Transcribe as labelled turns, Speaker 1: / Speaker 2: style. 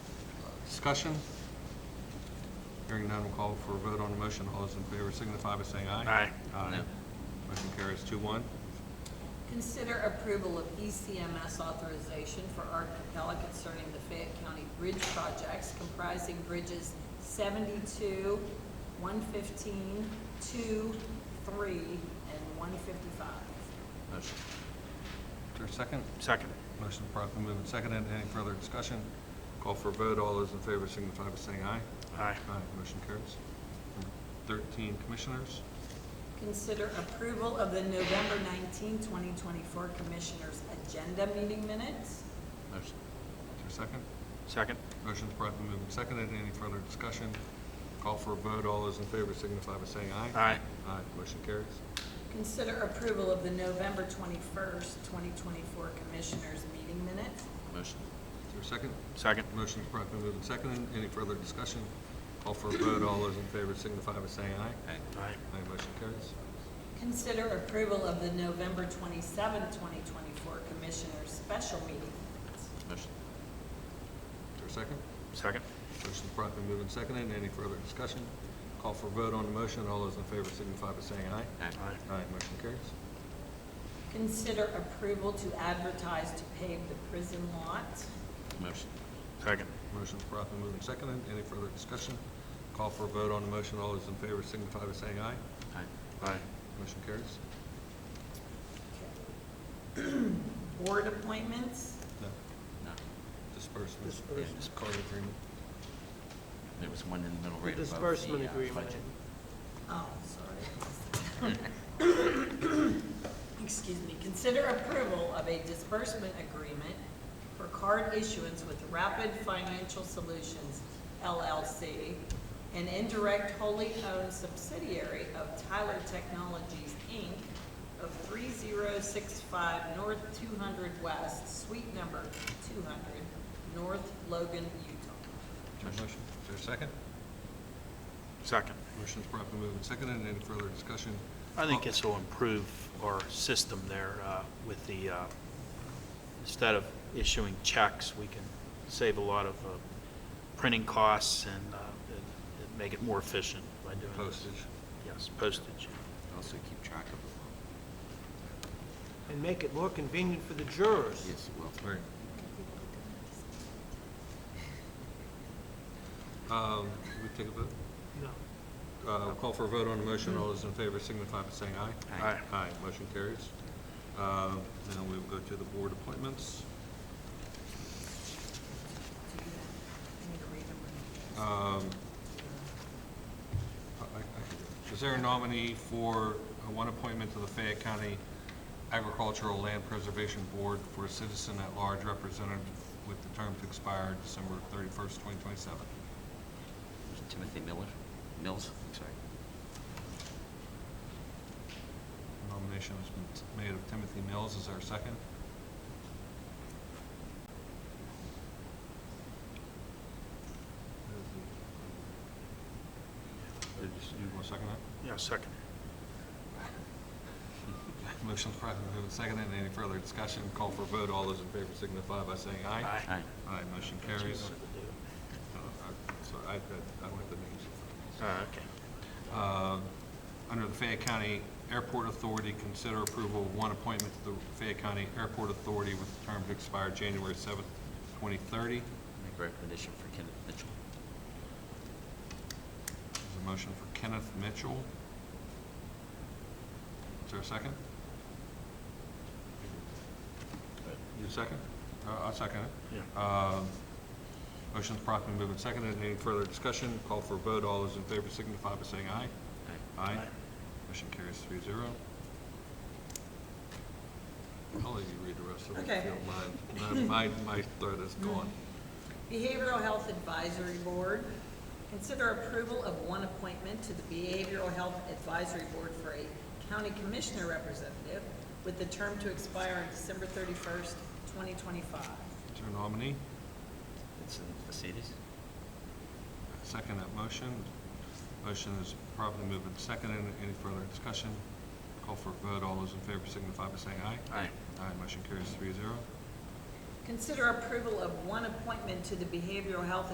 Speaker 1: Discussion? Hearing none, we'll call for a vote on the motion. All those in favor signify by saying aye.
Speaker 2: Aye.
Speaker 1: Aye. Motion carries two one.
Speaker 3: Consider approval of E ECMS authorization for Art Capella concerning the Fayette County Bridge projects comprising bridges seventy-two, one fifteen, two, three, and one fifty-five.
Speaker 1: Motion. Is there a second?
Speaker 2: Second.
Speaker 1: Motion promptly moved and seconded. Any further discussion? Call for a vote. All those in favor signify by saying aye.
Speaker 2: Aye.
Speaker 1: Motion carries. Number Thirteen, Commissioners.
Speaker 3: Consider approval of the November 19, 2024 Commissioners' Agenda Meeting Minutes.
Speaker 1: Motion. Is there a second?
Speaker 2: Second.
Speaker 1: Motion's promptly moved and seconded. Any further discussion? Call for a vote. All those in favor signify by saying aye.
Speaker 2: Aye.
Speaker 1: Aye. Motion carries.
Speaker 3: Consider approval of the November 21, 2024 Commissioners' Meeting Minutes.
Speaker 1: Motion. Is there a second?
Speaker 2: Second.
Speaker 1: Motion's promptly moved and seconded. Any further discussion? Call for a vote. All those in favor signify by saying aye.
Speaker 2: Aye.
Speaker 1: Aye. Motion carries.
Speaker 3: Consider approval of the November 27, 2024 Commissioners' Special Meeting Minutes.
Speaker 1: Motion. Is there a second?
Speaker 2: Second.
Speaker 1: Motion's promptly moved and seconded. Any further discussion? Call for a vote on the motion. All those in favor signify by saying aye.
Speaker 2: Aye.
Speaker 1: Aye. Motion carries.
Speaker 3: Consider approval to advertise to pave the prison lot.
Speaker 1: Motion.
Speaker 2: Second.
Speaker 1: Motion's promptly moved and seconded. Any further discussion? Call for a vote on the motion. All those in favor signify by saying aye.
Speaker 2: Aye.
Speaker 1: Motion carries.
Speaker 3: Board appointments.
Speaker 1: No.
Speaker 4: No,
Speaker 1: Disbursement.
Speaker 5: Disbursement.
Speaker 1: Yeah, Card agreement.
Speaker 4: there was one in the middle
Speaker 5: The
Speaker 4: right above the uh, budget.
Speaker 5: disbursement agreement.
Speaker 3: Oh, sorry. Excuse me. Consider approval of a disbursement agreement for card issuance with Rapid Financial Solutions LLC, an indirect wholly owned subsidiary of Tyler Technologies, Inc. of 3065 North 200 West, Suite number 200, North Logan, Utah.
Speaker 1: Is there a Motion. Is there a second?
Speaker 2: Second.
Speaker 1: Motion's promptly moved and seconded. Any further discussion?
Speaker 6: I think this will improve our system there uh, with the, uh, instead of issuing checks, we can save a lot of uh, printing costs and uh, and- and make it more efficient by doing this.
Speaker 1: Postage.
Speaker 6: Yes, postage.
Speaker 4: Also keep track of it.
Speaker 5: And make it more convenient for the jurors.
Speaker 4: Yes, it will.
Speaker 1: Right. Um, we take a vote?
Speaker 5: No.
Speaker 1: Uh, Call for a vote on the motion. All those in favor signify by saying aye.
Speaker 2: Aye.
Speaker 1: Aye, motion carries. Uh, Now we will go to the board appointments.
Speaker 3: I need to read them.
Speaker 1: Um, I- I- Is there a nominee for uh, one appointment to the Fayette County Agricultural Land Preservation Board for a citizen at large representative with the term to expire December thirty-first, twenty twenty-seven?
Speaker 4: Timothy Miller, Mills, I'm sorry.
Speaker 1: Nomination has been made of Timothy Mills. Is there a second? Did you want to second that?
Speaker 6: Yeah, second.
Speaker 1: Motion's promptly moved and seconded. Any further discussion? Call for a vote. All those in favor signify by saying aye.
Speaker 6: Aye.
Speaker 4: Aye.
Speaker 1: Aye, motion
Speaker 6: That's what
Speaker 1: carries.
Speaker 6: we wanted to do.
Speaker 1: Uh, I- Sorry, I, I- I went the names.
Speaker 6: Ah, Okay.
Speaker 1: Uh, Under the Fayette County Airport Authority, consider approval of one appointment to the Fayette County Airport Authority with the term to expire January seventh, twenty thirty. Is
Speaker 4: Make a recommendation for Kenneth Mitchell.
Speaker 1: there a motion for Kenneth Mitchell. Is there a second? You second? Uh, I'll second it.
Speaker 6: Yeah.
Speaker 1: Um, Motion's promptly moved and seconded. Any further discussion? Call for a vote. All those in favor signify by saying aye.
Speaker 4: Aye.
Speaker 1: Aye.
Speaker 6: Aye.
Speaker 1: Motion carries three zero. I'll let you read the rest of it if
Speaker 3: Okay.
Speaker 1: you don't mind. My, my my throat is gone.
Speaker 3: Behavioral Health Advisory Board, consider approval of one appointment to the Behavioral Health Advisory Board for a county commissioner representative with the term to expire on December thirty-first, twenty twenty-five.
Speaker 1: Is there a nominee?
Speaker 4: Vincent Vasidis.
Speaker 1: Second that motion. Motion is promptly moved and seconded. Any further discussion? Call for a vote. All those in favor signify by saying aye.
Speaker 4: Aye.
Speaker 1: Aye. Motion carries three zero.
Speaker 3: Consider approval of one appointment to the Behavioral Health